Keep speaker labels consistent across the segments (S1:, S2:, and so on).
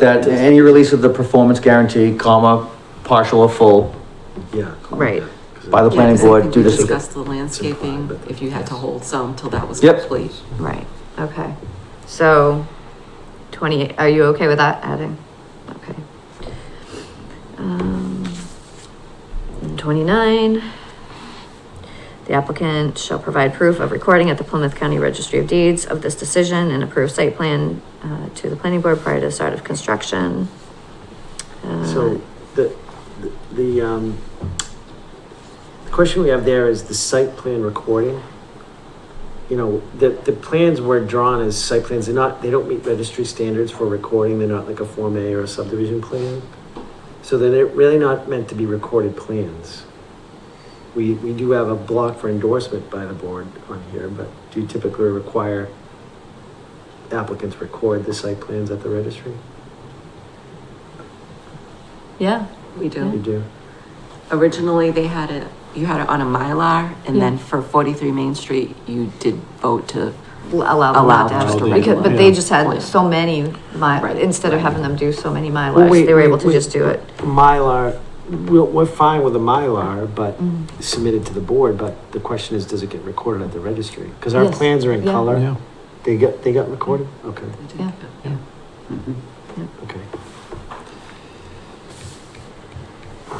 S1: That any release of the performance guarantee, comma, partial or full,
S2: Yeah. cool,
S3: Right.
S2: yeah, 'cause
S1: By the plan-
S2: it-
S1: planning
S4: Yeah, 'cause I
S1: board
S4: think
S1: due
S4: we
S1: to-
S4: discussed the landscaping, if you had to hold some till that was
S1: Yep.
S4: complete.
S3: Right, okay. So twenty, are you okay with that adding? Okay. Um, and Twenty-nine. The applicant shall provide proof of recording at the Plymouth County Registry of Deeds of this decision and approve site plan uh, to the planning board prior to the start of construction. Uh,
S2: So the, the- the, um, the question we have there is the site plan recording. You know, the, the plans were drawn as site plans, they're not, they don't meet registry standards for recording, they're not like a Form A or a subdivision plan. So they're really not meant to be recorded plans. We, we do have a block for endorsement by the board on here, but do you typically require applicants record the site plans at the registry?
S3: Yeah,
S4: We
S2: You
S4: do.
S2: do?
S4: Originally, they had it, you had it on a Mylar, and then
S3: Yeah.
S4: for forty-three Main Street, you did vote to,
S3: l- allow them not
S4: Allow
S3: to
S4: them
S3: have,
S4: just to
S3: because,
S4: regulate
S3: but
S4: it.
S3: they
S4: Yeah.
S3: just had so many
S4: Right.
S3: mi, instead of having them do so many
S2: Well,
S3: milars,
S2: wait,
S3: they were
S2: wait,
S3: able to
S2: wait.
S3: just do it.
S2: Mylar, we're, we're fine with a Mylar, but
S3: Mhm.
S2: submitted to the board, but the question is, does it get recorded at the registry? Because our
S3: Yes.
S2: plans are in
S3: Yeah.
S2: color. They got, they got recorded? Okay,
S4: they did
S3: Yeah.
S4: vote.
S2: okay.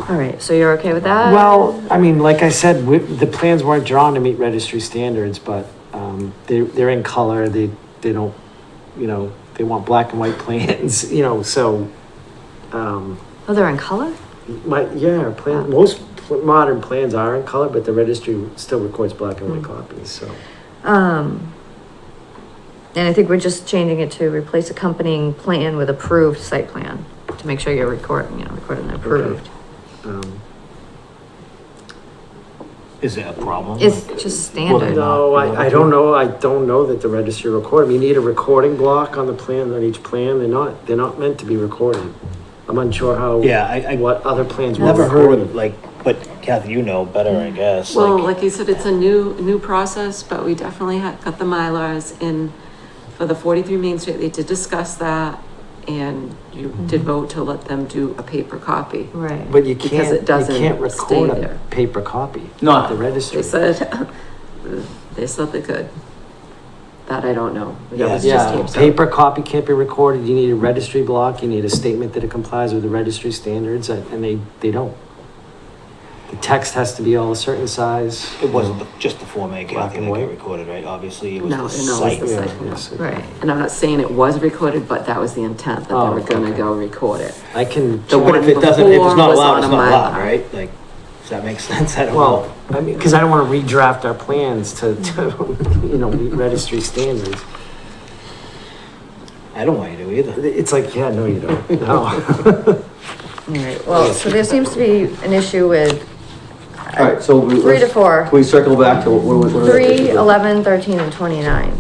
S3: All right, so you're okay with that?
S2: Well, I mean, like I said, we, the plans weren't drawn to meet registry standards, but, um, they, they're in color, they, they don't, you know, they want black and white plans, you know, so, um,
S3: Oh, they're in color?
S2: my, yeah, our
S3: Uh.
S2: plan, most pl- modern plans are in color, but the registry still records black and white
S3: Mm.
S2: copies, so.
S3: Um, and I think we're just changing it to replace accompanying plan with approved site plan to make sure you're recording, you know, recording the approved.
S2: Um,
S5: Is that a problem?
S3: It's just standard.
S2: No, I, I don't know, I don't know that the registry recorded, you need a recording block on the plan, on each plan, they're not, they're not meant to be recorded. I'm unsure how.
S5: Yeah, I- I-
S2: What other plans were
S5: Never heard
S2: recorded.
S5: of, like, but Kathy, you know better, I guess.
S4: Well,
S5: like-
S4: like you said, it's a new, new process, but we definitely had got the Mylars in for the forty-three Main Street, they did discuss that, and you did vote to let them do a paper copy.
S3: Mm-hmm. Right.
S2: But you
S4: Because it
S2: can't, you
S4: doesn't
S2: can't record
S4: stay
S2: a
S4: there.
S2: paper copy.
S1: Not-
S2: at The registry.
S4: They said, they said they could. That I don't know. That was just
S2: Yeah,
S4: tapes.
S2: paper copy can't be recorded, you need a registry block, you need a statement that it complies with the registry standards, and and they, they don't. The text has to be all a certain size.
S5: It wasn't the- just the Form A,
S2: Black
S5: Kathy,
S2: and
S5: that
S2: white.
S5: got recorded, right? Obviously, it was
S4: No,
S5: the
S4: no, it
S5: site.
S4: was the
S2: Yeah,
S4: site.
S2: yes.
S3: Right.
S4: And I'm not saying it was recorded, but that was the intent, that they
S2: Oh,
S4: were gonna
S2: okay.
S4: go record it.
S2: I can.
S4: The
S2: check
S5: But if it doesn't, if it's
S4: Before
S5: not
S4: was
S5: allowed,
S4: on
S5: it's
S4: a
S5: not allowed,
S4: Mylar.
S5: right? Like, does that make sense? I don't know.
S2: Well, I mean, because I don't want to redraft our plans to, to, you know, meet registry standards.
S5: I don't want you to either.
S2: It's like, yeah, no, you don't, no.
S3: All right, well, so there seems to be an issue with
S1: alright, so. we-
S3: Three to
S1: let's-
S3: four.
S1: Can we circle back to what, what was? what was that issue
S3: three,
S1: with?
S3: eleven, thirteen, and twenty-nine.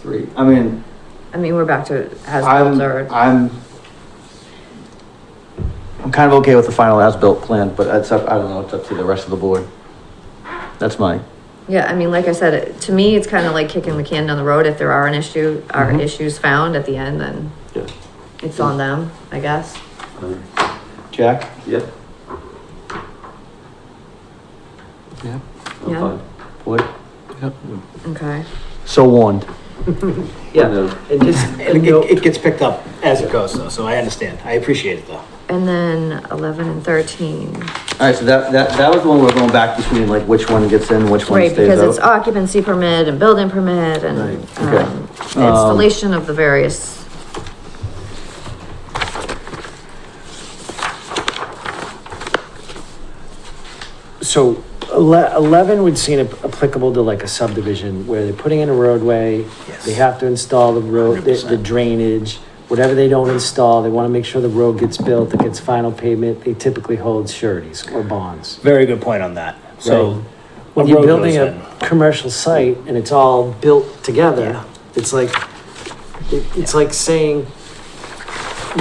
S1: Three, I mean,
S3: I mean, we're back to
S1: I'm,
S3: as-built or,
S1: I'm. I'm kind of okay with the final as-built plan, but it's up, I don't know, it's up to the rest of the board. That's my,
S3: yeah, I mean, like I said, it- to me, it's kind of like kicking the can down the road. If there are an issue, are
S1: Mhm.
S3: issues found at the end, then it's on them, I guess.
S1: Jack?
S6: Yeah.
S7: Yeah,
S6: I'm
S3: Yeah.
S6: fine.
S1: Wood?
S7: yep.
S3: Okay.
S1: So warned.
S2: Yeah, and just,
S5: It,
S2: and no,
S5: it- it gets picked up as it goes, though, so I understand. I appreciate it, though.
S3: And then eleven and thirteen.
S1: Alright, so that, that, that was the one we we're going back between, like, which one gets in, which one
S3: Right, because it's
S1: stays out.
S3: occupancy permit and building permit and,
S2: Right,
S1: okay.
S3: um, the installation of the various.
S2: so ele- eleven would seem ap- applicable to like a subdivision where they're putting in a roadway.
S5: Yes.
S2: They have to install the road, the- the
S5: 100%.
S2: drainage, whatever they don't install, they want to make sure the road gets built, it gets final pavement. They typically hold sureties or bonds.
S5: Very good point on that.
S2: Right.
S5: So.
S2: when
S5: a
S2: you're
S5: road
S2: building
S5: goes
S2: a commercial site and it's all built together,
S5: Yeah.
S2: it's like, it, it's like saying,